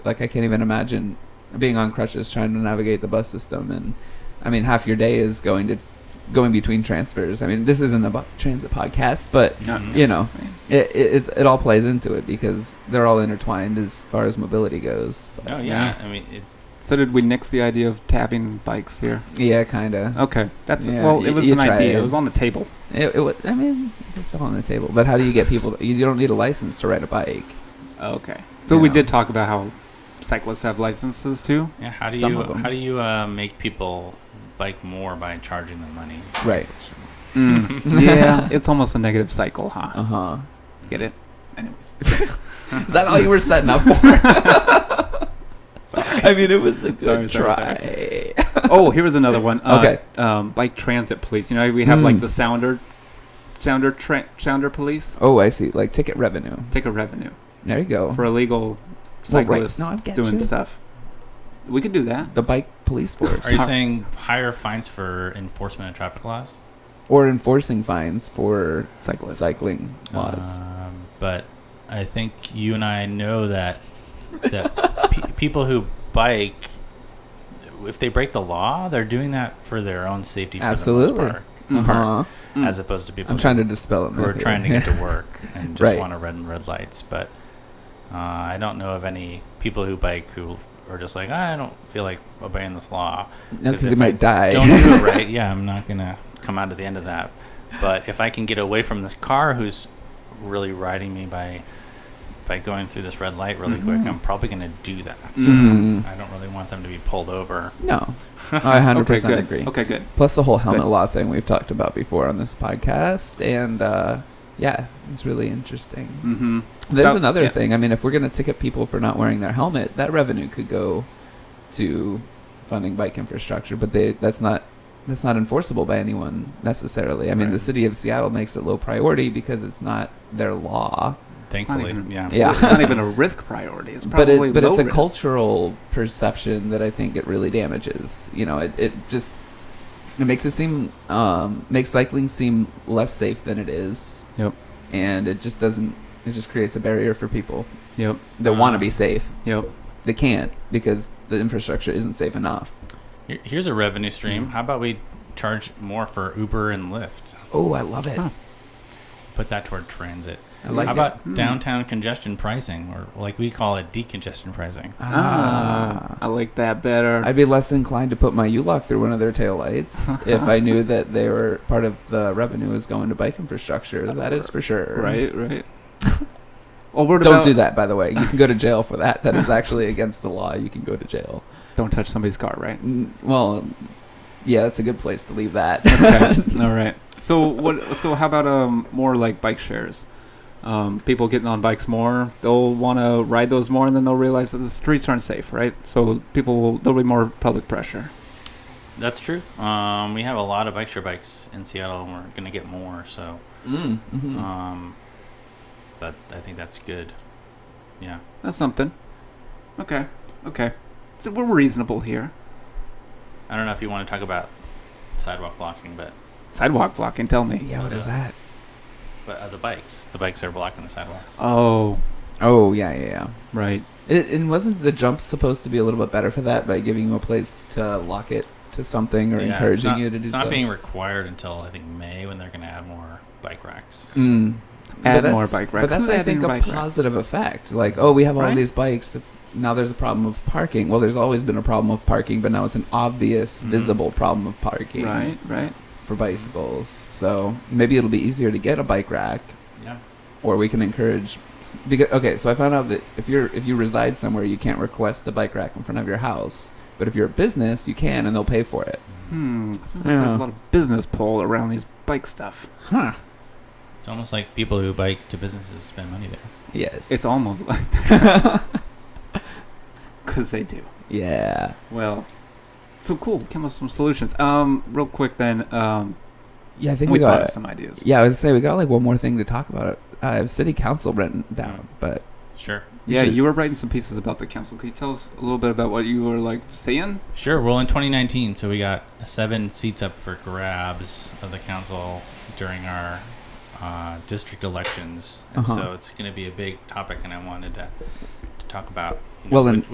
Like I can't even imagine being on crutches trying to navigate the bus system, and I mean half your day is going to going between transfers. I mean this isn't a bu- transit podcast, but you know it, it it's- it all plays into it because they're all intertwined as far as mobility goes. Oh yeah. Yeah. I mean, it, So did we nix the idea of tabbing bikes here? Yeah, kind of. Okay, that's Yeah, well. y- It was you an try idea. it. It was on the table. It, it, wa- I mean, it's all on the table. But how do you get people? To, you don't need a license to ride a bike. Okay. So we Yeah. did talk about how cyclists have licenses too. yeah. How do Some you of 'em. how do you uh, make people bike more by charging them money? Right. yeah, it's almost a negative cycle, huh? Uh huh. Get it? Anyways. Is that all you were setting up for? Sorry. I mean, it was a good Sorry, sorry, try. oh, here was another one. Uh, Okay. Um, bike transit police. You know, we have like Mm. the sounder, sounder, tra- sounder police. Oh. Oh, I see. Like ticket revenue. Take a revenue There you go. for illegal Well, right. cyclists No, I get doing you. stuff. We could do that. The bike police force, Are you saying higher fines for enforcement of traffic laws? or enforcing fines for Cyclists. cycling laws. Um, but I think you and I know that that pe- people who bike, if they break the law, they're doing that for their own safety. For The Absolutely. most part, Mhm. Uh-huh. Mm. As opposed to people I'm trying to dispel it. who are Matthew. trying to get to work and just Right. want to run red lights. But uh, I don't know of any people who bike who are just like, "Ah, I don't feel like obeying this law. no, 'cause because if you I might die. Don't do it right. Yeah, I'm not going to come out of the end of that. But if I can get away from this car who's really riding me by by going through this red light really quick, I'm probably going to do that. So Mhm. I don't really want them to be pulled over. no, I 100 okay, percent good. agree. Okay, good. Plus the whole helmet Good. law thing we've talked about before on this podcast, and uh, yeah, it's really interesting. Mm-hmm. There's So- another yeah. thing. I mean, if we're going to ticket people for not wearing their helmet, that revenue could go to funding bike infrastructure, but they that's not that's not enforceable by anyone necessarily. I mean, Right. the city of Seattle makes it low priority because it's not their law, Thankfully, even- yeah. Yeah. It's not even a risk priority. It's but probably it, but low it's a risk. cultural perception that I think it really damages. You know, it, it just it makes it seem um, makes cycling seem less safe than it is. Yep. And it just doesn't. It just creates a barrier for people Yep. that Uh-huh. want to be safe. Yep. they can't because the infrastructure isn't safe enough. Here- Here's a revenue stream. How about we charge more for Uber and Lyft? Oh, I love it. Huh. Put that toward transit. I like How it. about Hmm. downtown congestion pricing, or like we call it decongestion pricing? Ah, I ah, like that better. I'd be less inclined to put my U-lock through one of their taillights if I knew that they were part of the revenue was going to bike infrastructure. That is for sure. right. Right. well, what Don't about- do that, by the way. You can go to jail for that. That is actually against the law. You can go to jail. Don't touch somebody's car, right? N- Well, yeah, that's a good place to leave that. Okay. All right. So what? So how about um more like bike shares? Um, people getting on bikes more. They'll want to ride those more, and then they'll realize that the streets aren't safe, right? So people will. There'll be more public pressure. That's true. Um, we have a lot of bike share bikes in Seattle, and we're going to get more. So, Mm, mhm. Uh, um, but I think that's good. Yeah. That's something. Okay. Okay. So we're reasonable here. I don't know if you want to talk about sidewalk blocking, but Sidewalk blocking. Tell me. yeah, what is that? but uh, the bikes, the bikes are blocking the sidewalks. Oh, Oh, yeah, yeah, yeah. right. It, and wasn't the jump supposed to be a little bit better for that by giving you a place to lock it to something or Yeah, it's encouraging not- you to do It's so? not being required until I think May when they're going to add more bike racks. Mm. Add that's- more bike racks. But that's, Who's I adding think, a bike racks? positive effect. Like, oh, we have all Right? these bikes. If- Now there's a problem of parking. Well, there's always been a problem of parking, but now it's an obvious, Mhm. visible problem of parking Right. Right. for bicycles. So maybe it'll be easier to get a bike rack, Yeah. or we can encourage. Because okay, so I found out that if you're if you reside somewhere, you can't request a bike rack in front of your house. But if you're a business, you can, and they'll pay for it. Hmm. Seems like Yeah. There's a lot of business pull around these bike stuff. Huh. It's almost like people who bike to businesses spend money there. Yes. It's almost like because they do. Yeah. Well, so cool. Came up with some solutions. Um, real quick then. Um, Yeah, I we, think we, thought of got. some ideas. Yeah, I was gonna say we got like one more thing to talk about. I have city council written down, but Sure. we Yeah, should- you were writing some pieces about the council. Could you tell us a little bit about what you were like saying? Sure. Well, in 2019, so we got seven seats up for grabs of the council during our uh, district elections, and Uh-huh. so it's going to be a big topic, and I wanted to, to talk about. you Well, and- which-